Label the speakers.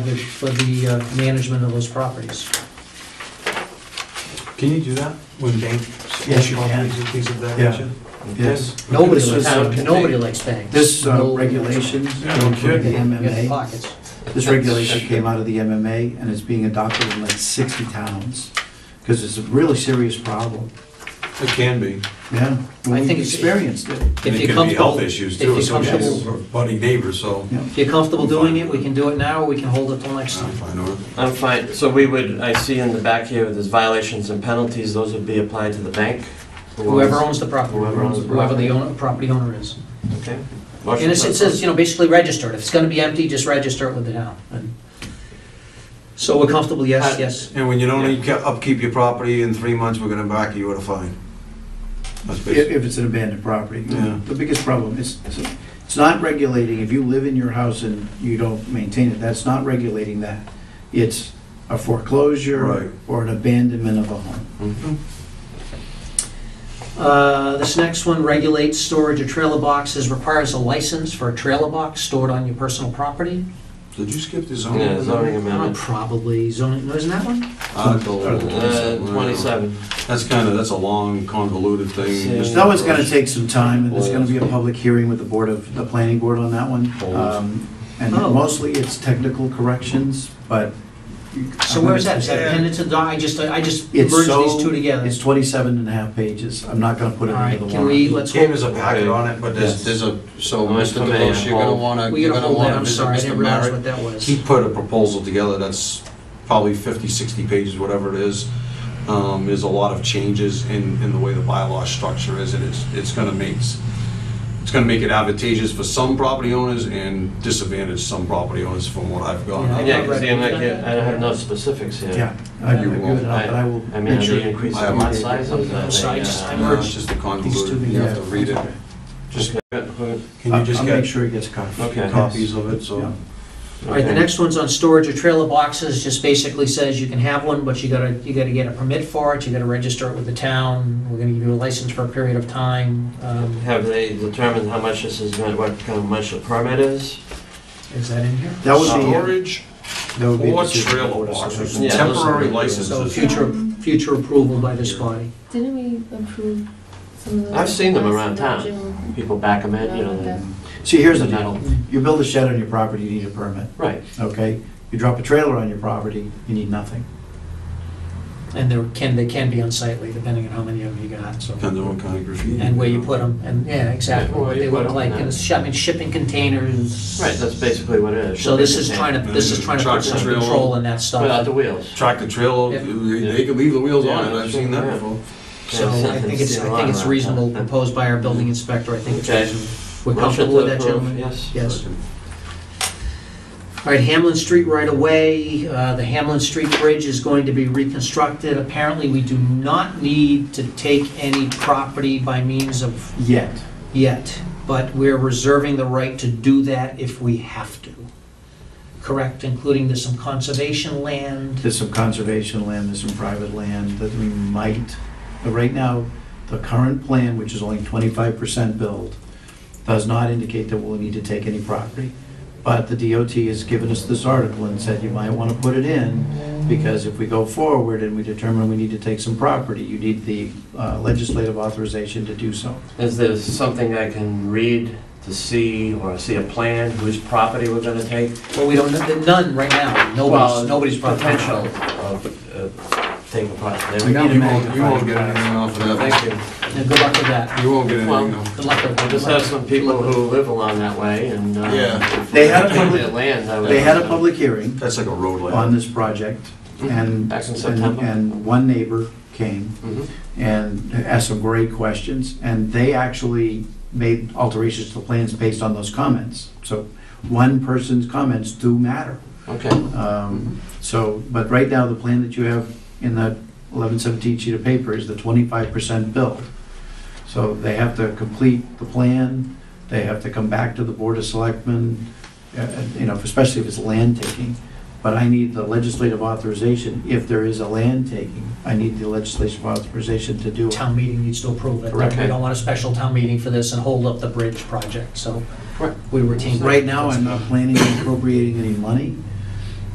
Speaker 1: for the uh, management of those properties.
Speaker 2: Can you do that when bank
Speaker 3: Yes, you
Speaker 2: issue
Speaker 3: can.
Speaker 2: these things of that
Speaker 3: Yeah.
Speaker 2: nature?
Speaker 3: Yes.
Speaker 1: Nobody
Speaker 3: This
Speaker 1: likes,
Speaker 3: was, uh,
Speaker 1: nobody likes banks.
Speaker 3: This uh,
Speaker 1: No-
Speaker 3: regulation,
Speaker 2: Yeah, no
Speaker 3: came from the
Speaker 2: kidding.
Speaker 1: You have
Speaker 3: MMA,
Speaker 1: pockets.
Speaker 3: this regulation came out of the MMA and is being adopted in like 60 towns because it's a really serious problem.
Speaker 2: It can be.
Speaker 3: Yeah,
Speaker 1: I
Speaker 3: we
Speaker 1: think it's-
Speaker 3: experienced it.
Speaker 1: If
Speaker 4: And it
Speaker 1: you're
Speaker 4: could be
Speaker 1: comfortable,
Speaker 4: health issues
Speaker 1: if
Speaker 4: too,
Speaker 1: you're
Speaker 4: associated
Speaker 1: comfortable-
Speaker 4: with buddy neighbors, so. uh,
Speaker 3: Yeah.
Speaker 1: if you're comfortable doing it, we can do it now, or we can hold it till next
Speaker 4: I'm
Speaker 1: time.
Speaker 4: fine with
Speaker 5: I'm fine, so we would, I see in the back here, there's violations and penalties, those would be applied to the bank?
Speaker 1: Whoever owns the property,
Speaker 5: Whoever owns the
Speaker 1: whoever the
Speaker 5: property.
Speaker 1: owner, property owner is.
Speaker 5: Okay.
Speaker 1: And it's- it says, you know, basically register it. If it's gonna be empty, just register it with the town. And- So we're comfortable, yes,
Speaker 4: Uh,
Speaker 1: yes.
Speaker 4: it. And when you don't upke- upkeep your property in three months, we're gonna back you with a fine. That's
Speaker 3: If
Speaker 4: basic.
Speaker 3: if it's an abandoned property.
Speaker 4: Yeah.
Speaker 3: The biggest problem is, is- it's not regulating, if you live in your house and you don't maintain it, that's not regulating that. It's a
Speaker 4: Right.
Speaker 3: foreclosure or an abandonment of a home.
Speaker 1: Uh, This next one regulates storage of trailer boxes, requires a license for a trailer box stored on your personal property.
Speaker 4: Did you skip the zoning?
Speaker 5: Yeah, zoning
Speaker 1: Uh,
Speaker 5: amendment,
Speaker 1: Probably zoning, no, isn't that one?
Speaker 4: Article
Speaker 5: uh,
Speaker 4: 27.
Speaker 5: twenty-seven.
Speaker 4: That's kinda, that's a long convoluted thing.
Speaker 5: Yeah.
Speaker 4: Just-
Speaker 3: That one's gonna take some time, and there's gonna be a public hearing with the board of, the planning board on that one. Um, And
Speaker 1: Oh.
Speaker 3: mostly it's technical corrections, but.
Speaker 1: So where is that? Is that appended to the, doc? I just, I just merged
Speaker 3: It's so-
Speaker 1: these two together.
Speaker 3: It's 27 and a half pages, I'm not gonna put it
Speaker 1: All right,
Speaker 3: into the
Speaker 1: can we,
Speaker 3: warrant.
Speaker 1: let's
Speaker 4: Gave
Speaker 1: hold,
Speaker 4: us a packet on it, but there's,
Speaker 5: Yes.
Speaker 4: there's a, so,
Speaker 5: I'm gonna
Speaker 4: Mr.
Speaker 5: come in
Speaker 4: DeLoach,
Speaker 5: and
Speaker 4: you're gonna
Speaker 5: hold-
Speaker 4: wanna,
Speaker 1: we
Speaker 4: you're
Speaker 1: gotta
Speaker 4: gonna
Speaker 1: hold that,
Speaker 4: wanna
Speaker 1: I'm
Speaker 4: visit
Speaker 1: sorry, I
Speaker 4: Mr.
Speaker 1: didn't realize
Speaker 4: Merritt.
Speaker 1: what that was.
Speaker 4: He put a proposal together that's probably 50, 60 pages, whatever it is. Um, There's a lot of changes in, in the way the bylaw structure is, and it's, it's gonna make, it's gonna make it advantageous for some property owners and disadvantage some property owners from what I've
Speaker 1: Yeah.
Speaker 4: gone.
Speaker 5: Yeah, because I'm not here, I don't have no specifics here.
Speaker 3: Yeah, I
Speaker 4: You
Speaker 3: agree
Speaker 4: won't.
Speaker 3: with that, but I will
Speaker 5: I mean,
Speaker 3: make sure.
Speaker 5: the increase
Speaker 4: I
Speaker 5: in lot
Speaker 4: have-
Speaker 5: sizes, I
Speaker 1: So I just- I
Speaker 5: think,
Speaker 4: No,
Speaker 5: uh,
Speaker 1: merged-
Speaker 4: It's just a
Speaker 3: These two
Speaker 4: convoluted, you have
Speaker 3: together.
Speaker 4: to read it.
Speaker 5: just, okay,
Speaker 4: Can you just
Speaker 3: I'll make
Speaker 4: get
Speaker 3: sure it gets covered.
Speaker 5: Okay.
Speaker 4: copies of it, so?
Speaker 1: All right, the next one's on storage of trailer boxes, just basically says you can have one, but you gotta, you gotta get a permit for it, you gotta register it with the town, we're gonna give you a license for a period of time. Um,
Speaker 5: Have they determined how much this is gonna, what kind of much the permit is?
Speaker 1: Is that in here?
Speaker 3: That would be,
Speaker 4: Storage
Speaker 3: that would be. a
Speaker 4: or
Speaker 3: decision
Speaker 4: trailer
Speaker 3: for us.
Speaker 4: boxes,
Speaker 5: Yeah, those are-
Speaker 4: temporary
Speaker 1: So
Speaker 4: licenses.
Speaker 1: future, future approval by this body.
Speaker 6: Didn't we approve some of those?
Speaker 5: I've seen them around town.
Speaker 6: last June?
Speaker 5: People back them in, you know, they.
Speaker 3: See, here's the
Speaker 5: they
Speaker 3: deal,
Speaker 5: don't-
Speaker 3: you build a shed on your property, you need a permit,
Speaker 5: Right,
Speaker 3: okay? You drop a trailer on your property, you need nothing.
Speaker 1: And there can, they can be unsightly, depending on how many of them you got, so.
Speaker 4: Depends on what kind of graffiti.
Speaker 1: And where you put them, and, yeah, exactly,
Speaker 5: Yeah, where
Speaker 1: what
Speaker 5: you
Speaker 1: they
Speaker 5: put
Speaker 1: look
Speaker 5: 'em,
Speaker 1: like,
Speaker 5: yeah.
Speaker 1: and it's, I mean, shipping containers.
Speaker 5: right, that's basically what it is.
Speaker 1: So this is trying to, this is trying to put some control in that
Speaker 5: Without
Speaker 1: stuff.
Speaker 5: the wheels.
Speaker 4: tractor trailer,
Speaker 1: Yeah.
Speaker 4: they they could leave the wheels on it,
Speaker 5: Yeah.
Speaker 4: I've seen that before.
Speaker 1: So I think it's, I think it's reasonable, proposed by our building inspector, I think it's
Speaker 5: Okay.
Speaker 1: reasonable. We're
Speaker 5: Motion
Speaker 1: comfortable
Speaker 5: to
Speaker 1: with that,
Speaker 5: approve,
Speaker 1: gentlemen?
Speaker 5: Yes.
Speaker 1: Yes. All right, Hamlin Street right away, uh, the Hamlin Street Bridge is going to be reconstructed. Apparently, we do not need to take any property by means of
Speaker 3: Yet,
Speaker 1: yet, but we're reserving the right to do that if we have to. Correct, including there's some conservation land.
Speaker 3: there's some conservation land, there's some private land that we might, but right now, the current plan, which is only twenty-five percent build, does not indicate that we'll need to take any property. But the DOT has given us this article and said you might want to put it in, because if we go forward and we determine we need to take some property, you need the uh, legislative authorization to do so.
Speaker 5: Is there something I can read to see, or see a plan, whose property we're gonna take?
Speaker 1: Well, we don't, none right now,
Speaker 5: Well,
Speaker 1: nobody's, nobody's brought that.
Speaker 5: Potential of uh, taking property. There we
Speaker 3: We
Speaker 5: go.
Speaker 3: got
Speaker 4: You won't, you won't get
Speaker 3: magnifier.
Speaker 4: anything off of
Speaker 5: Thank
Speaker 4: that,
Speaker 5: you.
Speaker 1: Now, good luck with that.
Speaker 4: you won't get
Speaker 5: Well,
Speaker 4: anything off.
Speaker 1: Good luck with
Speaker 5: I just have some people who live along that way and. uh,
Speaker 4: Yeah.
Speaker 5: if
Speaker 3: They had a
Speaker 5: they
Speaker 3: public-
Speaker 5: their land, I would-
Speaker 3: They had a public hearing
Speaker 4: That's like a road
Speaker 3: on
Speaker 4: layout.
Speaker 3: this project, and.
Speaker 5: Back in
Speaker 3: and-
Speaker 5: September.
Speaker 3: And one neighbor came,
Speaker 5: Mhm.
Speaker 3: and asked some great questions, and they actually made alterations to the plans based on those comments. So one person's comments do matter.
Speaker 5: Okay.
Speaker 3: Um, So, but right now, the plan that you have in that 1117 sheet of paper is the 25% build. So they have to complete the plan, they have to come back to the Board of Selectmen, uh, you know, especially if it's land taking. But I need the legislative authorization, if there is a land taking, I need the legislative authorization to do it.
Speaker 1: Town meeting needs to approve it.
Speaker 3: Correct.
Speaker 1: We don't want a special town meeting for this and hold up the bridge project, so we retain.
Speaker 3: Right now, I'm not planning on appropriating any money,